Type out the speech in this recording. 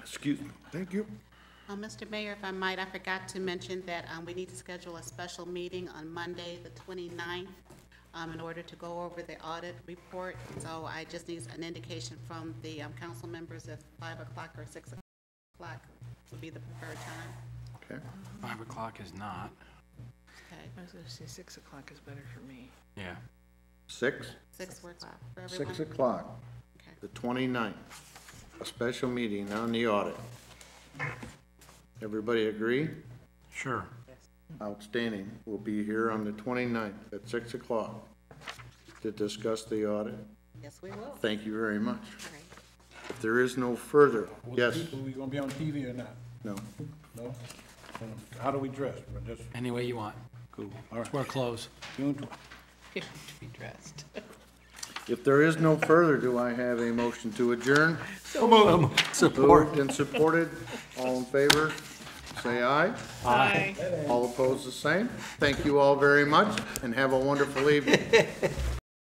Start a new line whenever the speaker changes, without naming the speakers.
Excuse me.
Thank you.
Uh, Mr. Mayor, if I might, I forgot to mention that um, we need to schedule a special meeting on Monday, the 29th, um, in order to go over the audit report. So I just need an indication from the um, council members if 5 o'clock or 6 o'clock would be the preferred time.
Okay.
Five o'clock is not.
Okay,
I was gonna say six o'clock is better for me.
Yeah.
Six?
6 works for everyone?
Six o'clock,
Okay.
the 29th, a special meeting on the audit. Everybody agree?
Sure.
Outstanding. We'll be here on the 29th at 6 o'clock to discuss the audit.
Yes, we will. All
Thank you very much.
right.
If there is no further, yes,
People, we gonna be on TV or not?
no.
No? Um, How do we dress? We're Just,
Any way you want.
cool, all right.
Wear clothes.
June tw-
To be dressed.
If there is no further, do I have a motion to adjourn? Moved and supported. All in favor, say aye.
Bye.
All opposed, the same. Thank you all very much, and have a wonderful evening.